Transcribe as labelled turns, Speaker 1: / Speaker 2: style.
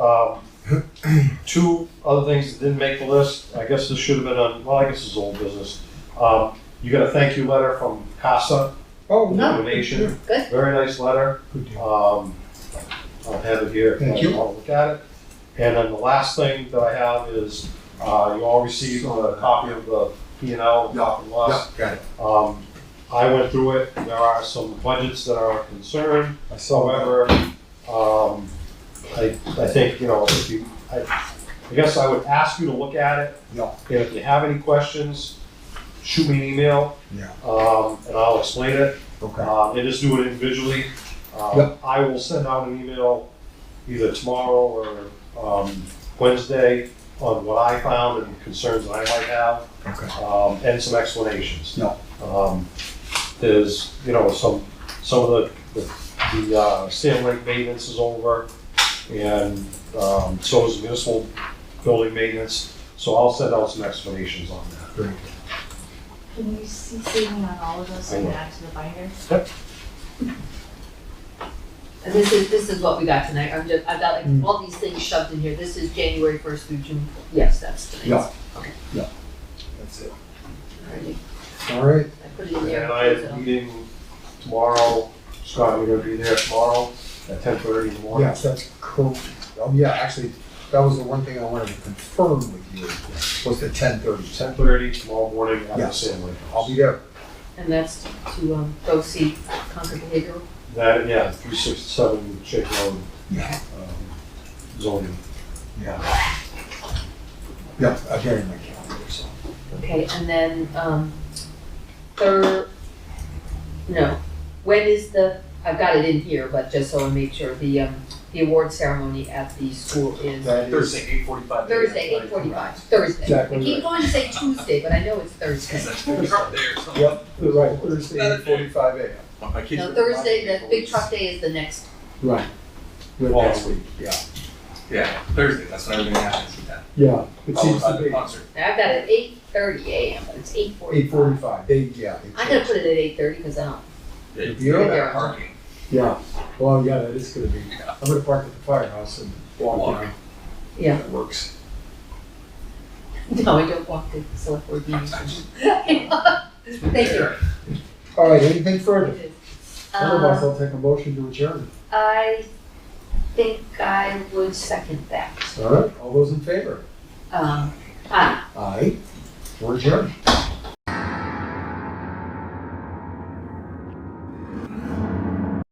Speaker 1: Um, Two other things that didn't make the list, I guess this should have been on, well, I guess it's old business. Um, You got a thank you letter from CASA,
Speaker 2: Oh,
Speaker 1: the
Speaker 2: no.
Speaker 1: donation,
Speaker 3: Good.
Speaker 1: very nice letter.
Speaker 2: Good deal.
Speaker 1: Um, I'll have it here. if
Speaker 2: Thank you.
Speaker 1: want to look at it. And then the last thing that I have is, uh, you all received a copy of the P and L, profit and
Speaker 4: Yeah,
Speaker 1: loss.
Speaker 4: got it.
Speaker 1: Um, I went through it, there are some budgets that are a concern,
Speaker 2: I saw that.
Speaker 1: however, um, I, I think, you know, if you, I, I guess I would ask you to look at it.
Speaker 2: Yeah.
Speaker 1: And if you have any questions, shoot me an email.
Speaker 2: Yeah.
Speaker 1: Um, and I'll explain it.
Speaker 2: Okay.
Speaker 1: Uh, and just do it individually. Um,
Speaker 2: Yep.
Speaker 1: I will send out an email either tomorrow or, um, Wednesday on what I found and concerns that I might have,
Speaker 2: Okay.
Speaker 1: um, and some explanations.
Speaker 2: No.
Speaker 1: Um, there's, you know, some, some of the, the, the, uh, Sam Lake maintenance is over and, um, so is municipal building maintenance. So I'll send out some explanations on that.
Speaker 2: Very good.
Speaker 3: Can you CC me on all of those and add to the binder?
Speaker 1: Yep.
Speaker 5: And this is, this is what we got tonight, I'm just, I've got
Speaker 2: Mm.
Speaker 5: like all these things shoved in here, this is January first through June, yes, that's tonight's.
Speaker 4: That's it.
Speaker 5: Alrighty.
Speaker 2: All right.
Speaker 5: I put it in there.
Speaker 1: And I have a meeting tomorrow, Scott, we're gonna be there tomorrow at ten thirty in the morning.
Speaker 2: Yes, that's cool. Oh, yeah, actually, that was the one thing I wanted to confirm with you, was the ten thirty.
Speaker 1: Ten thirty tomorrow morning at the
Speaker 2: Yes.
Speaker 1: Sam Lake
Speaker 2: I'll
Speaker 1: House.
Speaker 2: be there.
Speaker 5: And that's to, um, go see Concord Behavioral,
Speaker 1: That, yeah, three sixty-seven Shaker Road,
Speaker 2: Yeah.
Speaker 1: um, zoning.
Speaker 2: Yeah. Yeah, I got it in my calendar, so.
Speaker 5: okay, and then, um, third, no, when is the, I've got it in here, but just so I make sure, the, um, the award ceremony at the school is
Speaker 2: That is-
Speaker 4: eight forty-five.
Speaker 5: Thursday, eight forty-five, Thursday. I
Speaker 2: Exactly
Speaker 5: keep
Speaker 2: right.
Speaker 5: going to say Tuesday, but I know it's Thursday.
Speaker 2: Yep, you're right, Thursday,
Speaker 4: Thursday.
Speaker 2: forty-five AM.
Speaker 5: No, Thursday, the big truck day is the next
Speaker 2: Right. Good
Speaker 1: Well,
Speaker 2: next week, yeah.
Speaker 4: Yeah, Thursday, that's when everything happens with that.
Speaker 2: Yeah, it
Speaker 4: Followed
Speaker 2: seems
Speaker 4: by
Speaker 2: to
Speaker 4: the
Speaker 2: be.
Speaker 4: concert.
Speaker 5: I've got it eight thirty AM, but it's eight forty.
Speaker 2: uh, Eight forty-five, they, yeah. they
Speaker 5: I gotta
Speaker 2: changed.
Speaker 5: put it at eight thirty, cause I don't,
Speaker 2: The
Speaker 5: right
Speaker 2: bureau?
Speaker 5: there.
Speaker 4: Parking.
Speaker 2: Yeah, well, yeah, that is gonna be, I'm gonna park at the firehouse and walk
Speaker 4: Walk.
Speaker 2: down.
Speaker 5: Yeah.
Speaker 2: That works.
Speaker 5: no, I don't walk the select board meetings. Thank you.
Speaker 2: All right, anything further? Otherwise,
Speaker 5: Um,
Speaker 2: I'll take a motion to adjourn.
Speaker 5: I think I would second that.
Speaker 2: All right, all those in favor?
Speaker 5: Um, ah,
Speaker 2: Aye. We're adjourned.